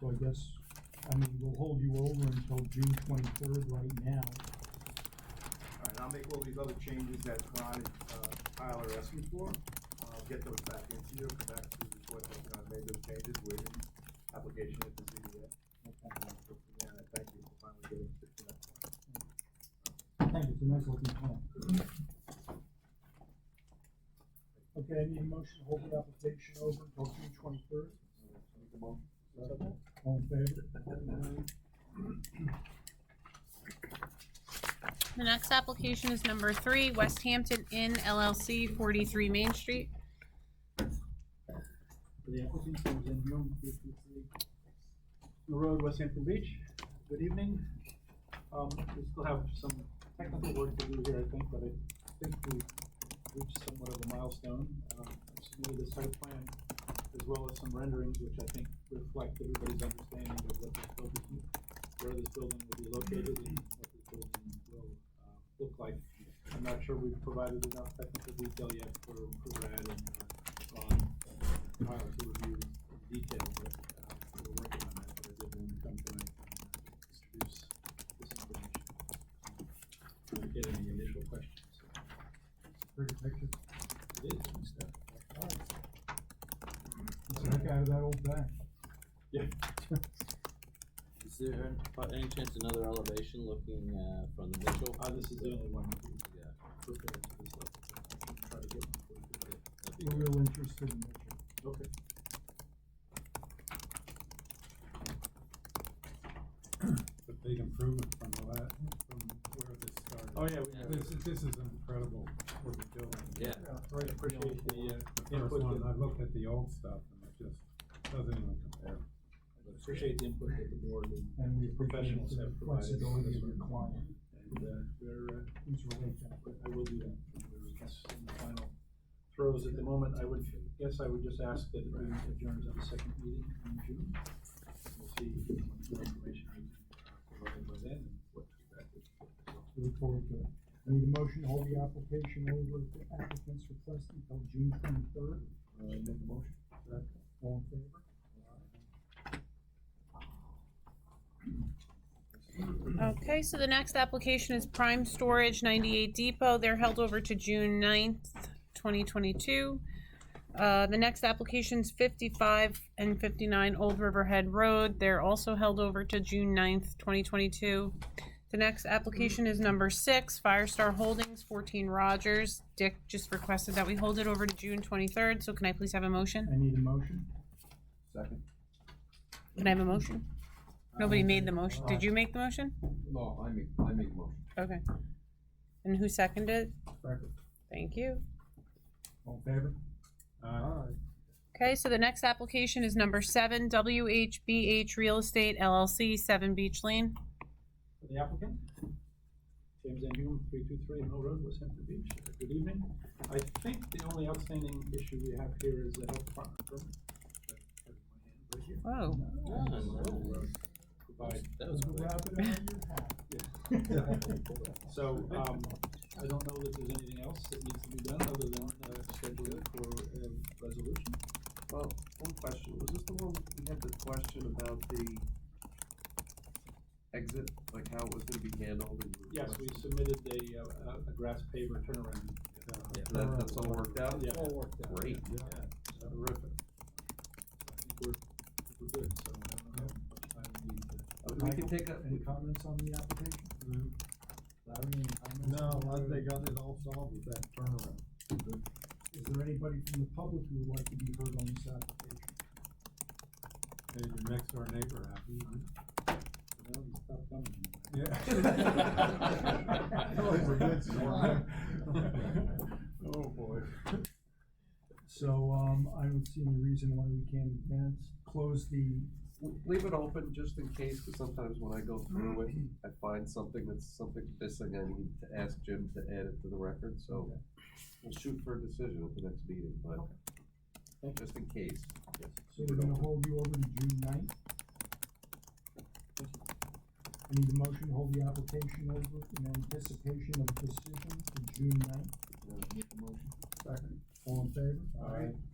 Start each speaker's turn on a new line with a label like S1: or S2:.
S1: So I guess, I mean, we'll hold you over until June twenty-third right now.
S2: All right, I'll make all these other changes that Ron and uh, Tyler are asking for. I'll get those back into you, come back to the report that I've made those changes with the application at the ZBA. Yeah, and thank you for finally getting to that point.
S1: Thank you, it's a nice looking plan. Okay, I need a motion to hold the application over until June twenty-third. All in favor?
S3: The next application is number three, West Hampton Inn LLC, forty-three Main Street.
S4: for the applicant, who is in room three two three. The road, West Hampton Beach, good evening. Um, we still have some technical work to do here, I think, but I think we reached somewhat of a milestone. Um, I submitted a site plan as well as some renderings, which I think reflect everybody's understanding of what this building, where this building will be located and what this building will, uh, look like. I'm not sure we've provided enough technical detail yet for, for Brad and, uh, Ron, Tyler to review in detail, but, uh, we're working on that, but I did want to come tonight and uh, introduce this information. Do we get any initial questions?
S1: Pretty picture.
S4: It is, and stuff.
S1: It's like out of that old bank.
S4: Yeah.
S5: Is there by any chance another elevation looking uh, from the Mitchell?
S4: Uh, this is the only one we
S5: Yeah,
S4: prepared to this level. Try to get one for you.
S5: that'd be
S1: We're
S5: great.
S1: real interested in it.
S4: Okay.
S6: a big improvement from the last, from where this started.
S4: Oh, yeah,
S5: Yeah.
S4: we,
S6: This, is- this is incredible, what we're doing.
S5: Yeah,
S4: I appreciate the, uh,
S6: The first
S4: input
S6: one,
S4: that-
S6: I looked at the old stuff and it just doesn't even compare.
S4: uh, appreciate the input that the board and,
S1: And we appreciate
S4: Professionals
S1: the
S4: have provided
S1: flexibility of
S4: us
S1: your
S4: with-
S1: client,
S4: and, uh, they're, uh,
S1: who's related.
S4: but I will do that when we're in this- in the final throws at the moment. I would, guess I would just ask that we adjourn to the second meeting in June. We'll see what more information we can provide by then and what feedback we can get. So,
S1: We Look forward to it. I need a motion to hold the application over at the applicant's request until June twenty-third.
S4: uh, make a motion.
S1: All in favor?
S3: Okay, so the next application is Prime Storage, ninety-eight Depot, they're held over to June 9th, twenty twenty-two. Uh, the next application's fifty-five and fifty-nine Old Riverhead Road, they're also held over to June 9th, twenty twenty-two. The next application is number six, Firestar Holdings, fourteen Rogers, Dick just requested that we hold it over to June twenty-third, so can I please have a motion?
S1: I need a motion.
S7: Second?
S3: Can I have a motion? Nobody made the motion, did you make the motion?
S7: No, I make, I make motion.
S3: Okay. And who seconded?
S1: Second.
S3: Thank you.
S1: All in favor?
S6: Uh,
S3: Okay, so the next application is number seven, WHBH Real Estate LLC, Seven Beach Lane.
S4: For the applicant, James Van Hume, three two three Mill Road, West Hampton Beach. Uh, Good evening. I think the only outstanding issue we have here is the health department permit. I have my hand right here.
S3: Whoa.
S5: Yeah, no.
S4: We'll, uh, Provide
S5: that was quick.
S4: So, um, I don't know that there's anything else that needs to be done other than, uh, schedule it for a resolution.
S7: Well, one question, was this the one, we had the question about the exit, like how it was gonna be handled and? you were
S4: Yes, we
S7: requesting-
S4: submitted a, uh, a grass paver turnaround.
S7: Yeah, That, that's all worked out?
S4: Yeah.
S7: Great.
S4: Yeah, so
S7: Terrific.
S4: I think we're, we're good, so I don't know how much time we need to.
S1: Oh,
S7: Uh, We can take a,
S1: Any comments on the application? Larry, any comments?
S6: no, I- they got it all solved with that turnaround.
S1: Is there anybody from the public who would like to be heard on this application?
S6: Made your next door neighbor uh, happy.
S4: Well, you stopped coming.
S6: Yeah. Always a good story.
S4: Oh, boy.
S1: So, um, I don't see any reason why we can't advance, close the,
S7: w- leave it open just in case, cause sometimes when I go through it, I find something that's something missing, I need to ask Jim to add it to the record, so we'll shoot for a decision at the next meeting, but just in case.
S1: so we're gonna hold you over to June ninth. I need a motion to hold the application over in anticipation of decision to June ninth.
S7: Make the motion.
S1: All in favor?
S4: All right.